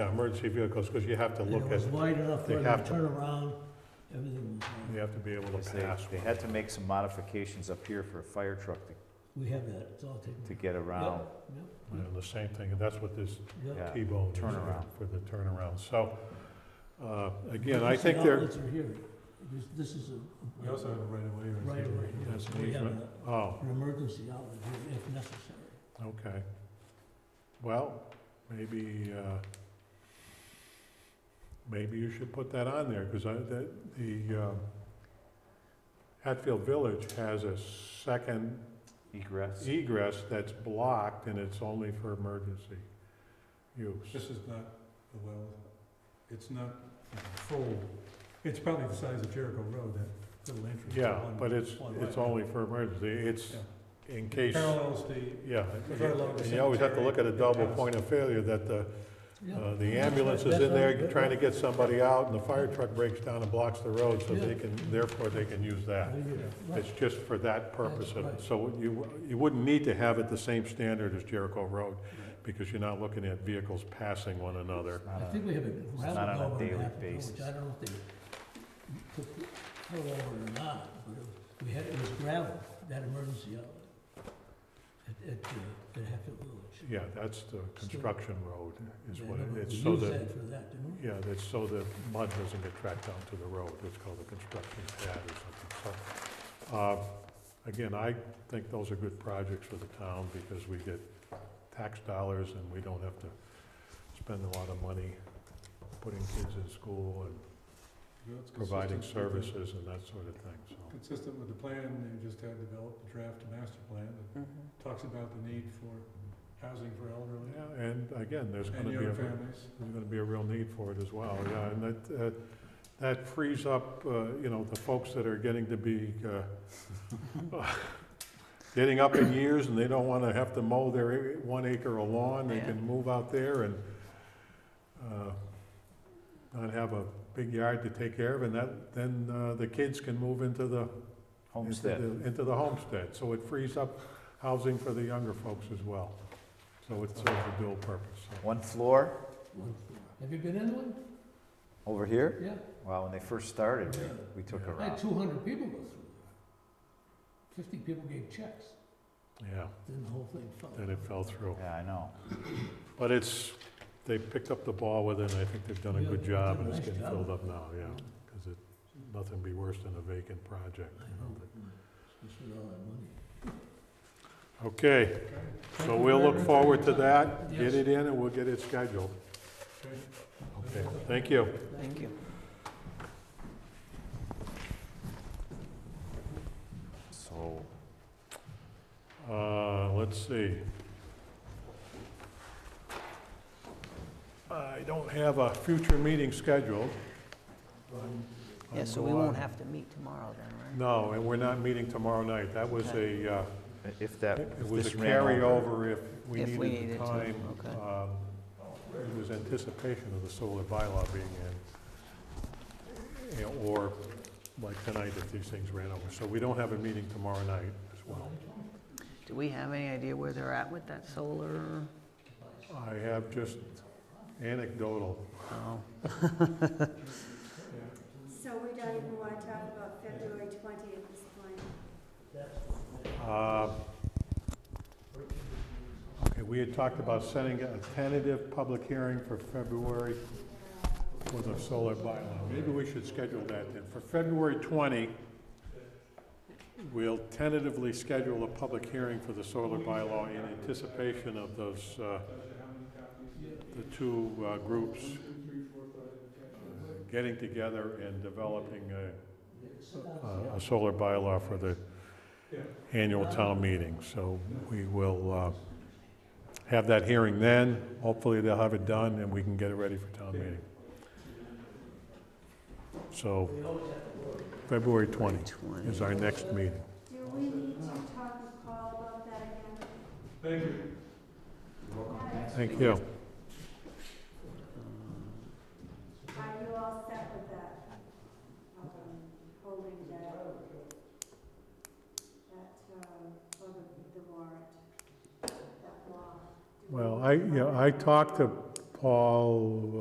Yeah, emergency vehicles, because you have to And look at, it was wide enough for they them to have to- turn around, everything was, uh, you have to be able Because to they, pass. they one. had to make some modifications up here for a fire truck to, we have that, it's all taken. to get around. Yeah, the same thing, and that's what this Yeah, yeah. Yeah, T-bone is for- turnaround. for the turnaround. So, uh, again, You I see think they're. outlets are here. This, this is a. a right-of-way Right, right, yeah, so we have a- Oh, an emergency outlet here if necessary. okay. Well, maybe, uh, maybe you should put that on there, because I, that, the, um, Hatfield Village has a second Egress. egress that's blocked and it's only for emergency use. This is not a well, it's not full, it's probably the size of Jericho Road, that little entrance. Yeah, One- but it's, one it's way. only for emergency, it's in case, Parallels the, yeah. Right along the And you always have to look at a double cemetery. point of failure, that the, Yeah. uh, the ambulance is in there trying to get somebody out and the fire truck breaks down and blocks the road, so they can, therefore they can use that. Right. It's just for that purpose, of it. right. so you, you wouldn't need to have it the same standard as Jericho Road, because you're not looking at vehicles passing one another. It's not I a- think we have a gravel not on a culvert daily in Hatfield Village. basis. I don't know if they took the culvert or not, but it- we had, it was gravel, that emergency outlet at, at, uh, at Hatfield Village. Yeah, that's the construction road, is Yeah, what no, but it is, we so used that, that for that, didn't we? yeah, that's so that mud doesn't get tracked down to the road, it's called a construction pad or something, so. uh, Again, I think those are good projects for the town, because we get tax dollars and we don't have to spend a lot of money putting kids in school and you know, it's providing consistent with the- services and that sort of thing, so. Consistent with the plan, they just had developed the draft master plan that talks about the need for housing for elderly Yeah, and again, there's gonna and be young a. families. There's gonna be a real need for it as well, yeah, and that, uh, that frees up, uh, you know, the folks that are getting to be, uh, getting up in years and they don't wanna have to mow their one acre of lawn, they can move out there and, uh, not have a big yard to take care of, and that, then, uh, the kids can move into the, into Homestead. the, into the homestead, so it frees up housing for the younger folks as well. So it serves a dual purpose, so. One floor One floor. Have you been in one? over here? Yeah. Wow, when they first started, we- we took Yeah. a I had route. two hundred people go through there. Fifty people gave checks, Yeah, then the whole thing fell. then it fell through. Yeah, I know. But it's, they picked up the ball with it, and I think they've done a Yeah, good they've job, done and a it's nice getting job. filled up now, yeah. Because it, nothing be worse than a vacant project, I you know. know, but we spent all that money. Okay, so you we'll very look much for forward to your time. that, get Yes. it in, and we'll get it scheduled. Okay, thank you. Thank you. So, Uh, let's see. I don't have a future meeting scheduled. Yeah, so we won't have to meet tomorrow then, right? No, and we're not meeting tomorrow night. That was a, uh, if that, It if was a this ran over. carryover if we If we needed the needed to, time. okay. um, It was anticipation of the solar bylaw being in, you know, or like tonight if these things ran over. So we don't have a meeting tomorrow night as well. Do we have any idea where they're at with that solar? I have just anecdotal. Oh, So we don't even want to talk about February twentieth at this point. Uh, Okay, we had talked about setting a tentative public hearing for February for the solar bylaw. Maybe we should schedule that then. For February 20, we'll tentatively schedule a public hearing for the solar bylaw in anticipation of those, uh, the two uh, groups uh, getting together and developing a- a, a solar bylaw for the annual town meeting. So we will uh, have that hearing then. Hopefully, they'll have it done, and we can get it ready for town meeting. So February 20 is our next meeting. Do we need to talk with Paul about that again? Thank you. Thank you. Are you all set with that? Um, Holding that, that, um, for the, the warrant, that law? Do we- Well, I, yeah, I talked to Paul